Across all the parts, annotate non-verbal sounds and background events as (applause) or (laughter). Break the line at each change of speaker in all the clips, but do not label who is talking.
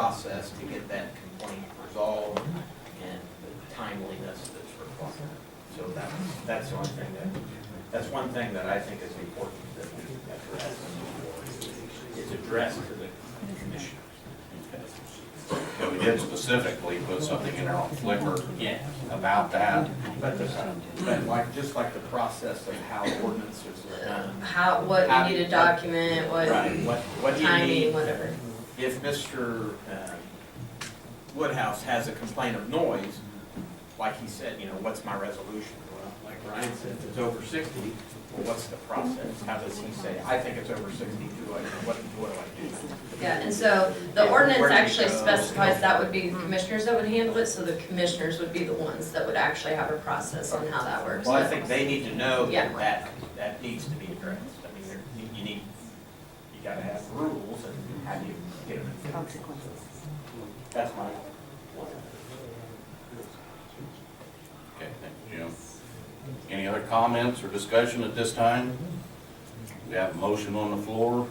process to get that complaint resolved and the timeliness that's required. So that, that's one thing that, that's one thing that I think is important that we address. It's addressed to the commissioners.
But we did specifically put something in there on Flickr
Yeah.
about that.
But the, but like, just like the process of how ordinances are done.
How, what
How-
you need to document, what
What, what do you
timing,
need?
whatever.
If Mr. uh, Woodhouse has a complaint of noise, like he said, you know, what's my resolution? Well, like Ryan said, if it's over sixty, well, what's the process? How does he say, I think it's over sixty, do I, what, what do I do?
Yeah, and so the ordinance
Where do you
actually
go?
specifies that would be the commissioners that would handle it, so the commissioners would be the ones that would actually have a process on how that works.
Well, I think they need to know
Yeah.
that that, that needs to be addressed. I mean, there, you- you need, you gotta have rules and how do you get them enforced?
consequences.
That's my,
Okay, thank you, Jim. Any other comments or discussion at this time? We have a motion on the floor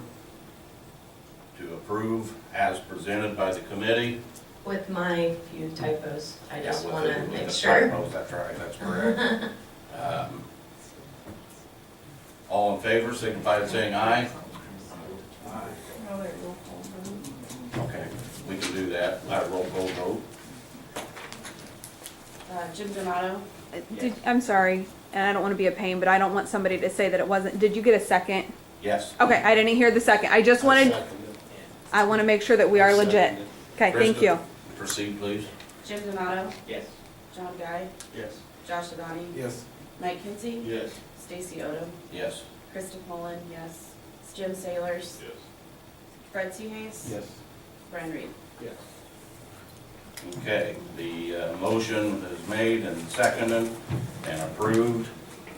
to approve as presented by the committee.
With my few typos, I just
Yeah, with
wanna
the- with
make
the
sure.
typos, That's right, that's
(laughs)
correct. Um, All in favor, signify by saying aye. Okay, we can do that, I roll call vote.
Uh, Jim Donato,
Did, I'm sorry, and I don't want to be a pain, but I don't want somebody to say that it wasn't, did you get a second?
Yes.
Okay, I didn't hear the second, I just wanted, I want to make sure that we are legit. Okay, thank you.
Krista, Proceed, please.
Jim Donato,
yes.
John Guy,
Yes.
Josh Adani. Yes. Mike Kinsey.
Yes.
Stacy Odom.
Yes.
Krista Mullin, yes. Jim Sailors.
Yes.
Fred Seahays.
Yes.
Brian Reed.
Yes.
Okay, the uh, motion is made and seconded and approved.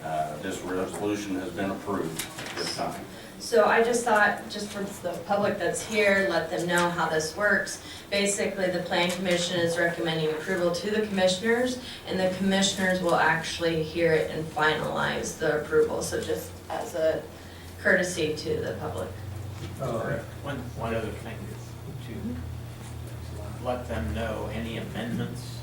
Uh, This resolution has been approved at this time.
So I just thought, just for the public that's here, let them know how this works. Basically, the plan commission is recommending approval to the commissioners, and the commissioners will actually hear it and finalize the approval, so just as a courtesy to the public.
Oh,
Correct. One, one other thing is to let them know any amendments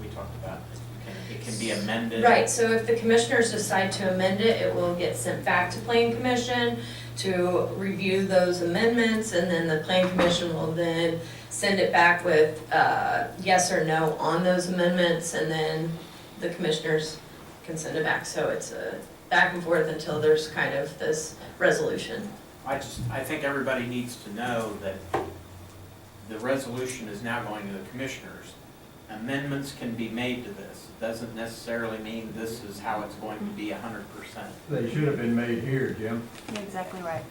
we talked about, it can- it can be amended.
Right, so if the commissioners decide to amend it, it will get sent back to plan commission to review those amendments, and then the plan commission will then send it back with, uh, yes or no on those amendments, and then the commissioners can send it back, so it's a back and forth until there's kind of this resolution.
I just, I think everybody needs to know that the resolution is now going to the commissioners. Amendments can be made to this. It Doesn't necessarily mean this is how it's going to be hundred percent.
They should have been made here, Jim.
Exactly right.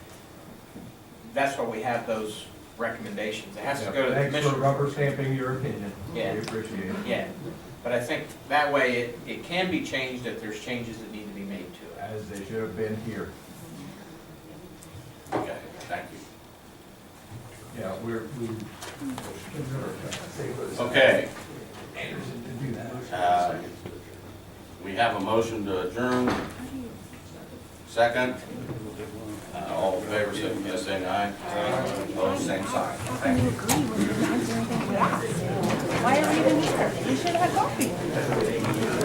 That's why we have those recommendations. It has to go to the
Thanks for
commissioners.
rubber stamping your opinion.
Yeah.
We appreciate it.
Yeah, but I think that way it, it can be changed if there's changes that need to be made to it.
As they should have been here.
Okay, thank you.
Yeah, we're, we.
Okay,
To do that.
uh, we have a motion to adjourn. Second. Uh, All in favor, signify by saying aye. Opposed, same sign. Thank you.
Why are we even here? We should have coffee.